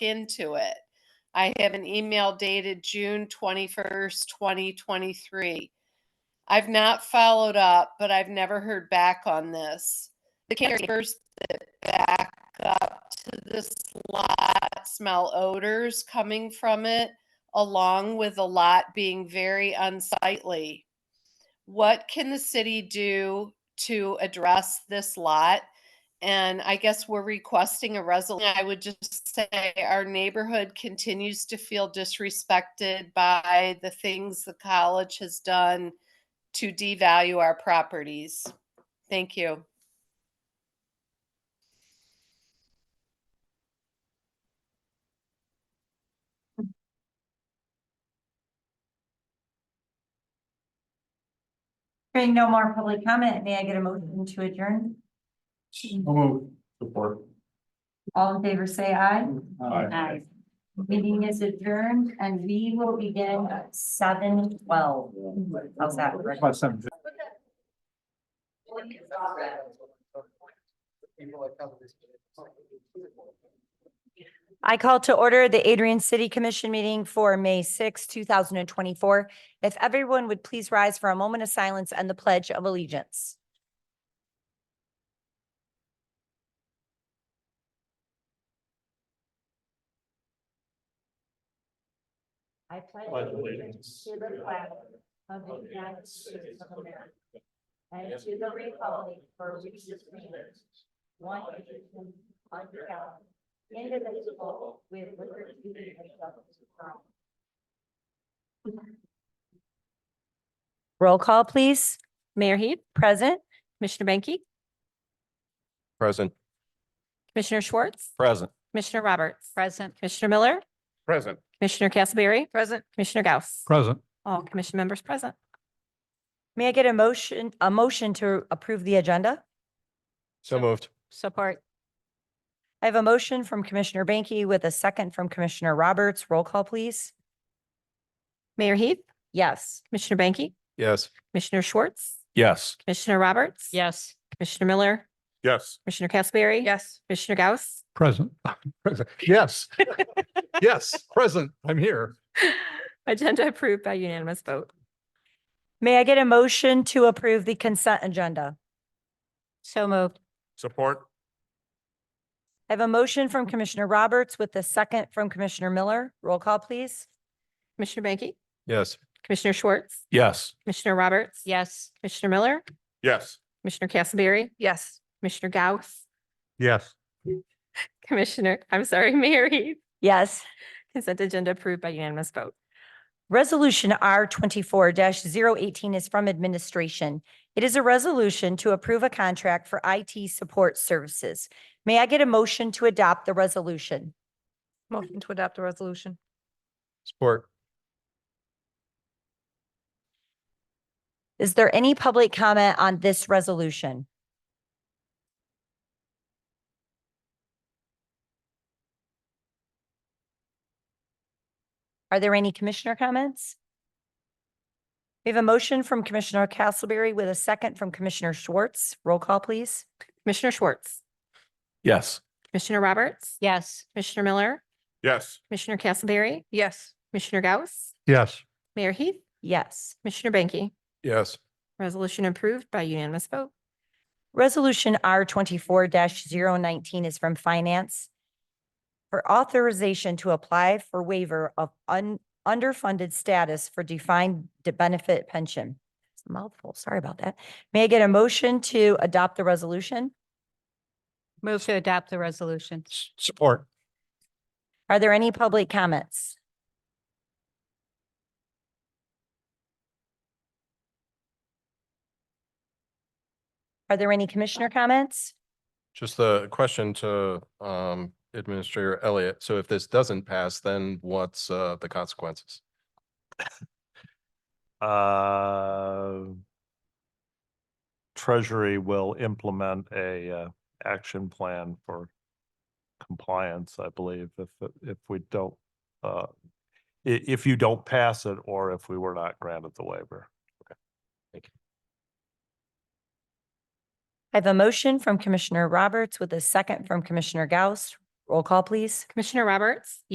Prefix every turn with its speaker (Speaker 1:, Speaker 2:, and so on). Speaker 1: into it. I have an email dated June 21st, 2023. I've not followed up, but I've never heard back on this. The candidates first that back up to this lot smell odors coming from it, along with the lot being very unsightly. What can the city do to address this lot? And I guess we're requesting a resolution. I would just say our neighborhood continues to feel disrespected by the things the college has done to devalue our properties. Thank you.
Speaker 2: Hearing no more public comment, may I get a motion to adjourn?
Speaker 3: move. Support.
Speaker 2: All in favor, say aye.
Speaker 3: Aye.
Speaker 2: Meeting is adjourned and we will begin at seven twelve. How's that?
Speaker 3: About seven
Speaker 2: I call to order the Adrian City Commission meeting for May 6, thousand and twenty-four. If everyone would please rise for a moment of silence and the pledge of allegiance. I
Speaker 3: Pledge allegiance to the flag
Speaker 2: of
Speaker 3: the United States of America and to the republic for which it stands, one nation, under God, indivisible, with liberty and justice for all.
Speaker 2: Roll call, please. Mayor Heath, present. Commissioner Banky,
Speaker 4: Present.
Speaker 2: Commissioner Schwartz,
Speaker 4: Present.
Speaker 2: Commissioner Roberts. Present. Commissioner Miller,
Speaker 4: Present.
Speaker 2: Commissioner Castleberry. Present. Commissioner Gauss.
Speaker 3: Present.
Speaker 2: All commission members present. May I get a motion, a motion to approve the agenda?
Speaker 4: So moved.
Speaker 2: Support. I have a motion from Commissioner Banky with a second from Commissioner Roberts. Roll call, please.
Speaker 5: Mayor Heath,
Speaker 2: Yes.
Speaker 5: Commissioner Banky,
Speaker 4: Yes.
Speaker 5: Commissioner Schwartz,
Speaker 4: Yes.
Speaker 5: Commissioner Roberts.
Speaker 2: Yes.
Speaker 5: Commissioner Miller,
Speaker 4: Yes.
Speaker 5: Commissioner Castleberry.
Speaker 2: Yes.
Speaker 5: Commissioner Gauss.
Speaker 3: Present. Present. Yes. Yes, present. I'm here.
Speaker 5: Agenda approved by unanimous vote.
Speaker 2: May I get a motion to approve the consent agenda?
Speaker 5: So moved.
Speaker 4: Support.
Speaker 2: I have a motion from Commissioner Roberts with a second from Commissioner Miller. Roll call, please.
Speaker 5: Commissioner Banky,
Speaker 4: Yes.
Speaker 5: Commissioner Schwartz,
Speaker 4: Yes.
Speaker 5: Commissioner Roberts.
Speaker 2: Yes.
Speaker 5: Commissioner Miller,
Speaker 4: Yes.
Speaker 5: Commissioner Castleberry. Yes. Commissioner Gauss,
Speaker 3: Yes.
Speaker 5: Commissioner, I'm sorry, Mayor Heath.
Speaker 2: Yes.
Speaker 5: Consent agenda approved by unanimous vote.
Speaker 2: Resolution R twenty-four 18 is from administration. It is a resolution to approve a contract for IT support services. May I get a motion to adopt the resolution?
Speaker 5: Motion to adopt the resolution.
Speaker 4: Support.
Speaker 2: Is there any public comment on this resolution? Are there any commissioner comments? We have a motion from Commissioner Castleberry with a second from Commissioner Schwartz. Roll call, please.
Speaker 5: Commissioner Schwartz,
Speaker 4: Yes.
Speaker 5: Commissioner Roberts. Yes. Commissioner Miller,
Speaker 4: Yes.
Speaker 5: Commissioner Castleberry. Yes. Commissioner Gauss,
Speaker 3: Yes.
Speaker 5: Mayor Heath,
Speaker 2: Yes.
Speaker 5: Commissioner Banky.
Speaker 4: Yes.
Speaker 5: Resolution approved by unanimous vote.
Speaker 2: Resolution R twenty-four 19 is from Finance for authorization to apply for waiver of un- underfunded status for defined de- benefit pension. It's a Mouthful, sorry about that. May I get a motion to adopt the resolution?
Speaker 5: Move to adopt the resolution.
Speaker 4: Support.
Speaker 2: Are there any public comments? Are there any commissioner comments?
Speaker 4: Just a question to um Administrator Elliott. So if this doesn't pass, then what's uh the consequences?
Speaker 6: Uh, Treasury will implement a uh, action plan for compliance, I believe, if, it- if we don't, uh, i- if you don't pass it or if we were not granted the waiver.
Speaker 2: I have a motion from Commissioner Roberts with a second from Commissioner Gauss. Roll call, please.
Speaker 5: Commissioner Roberts?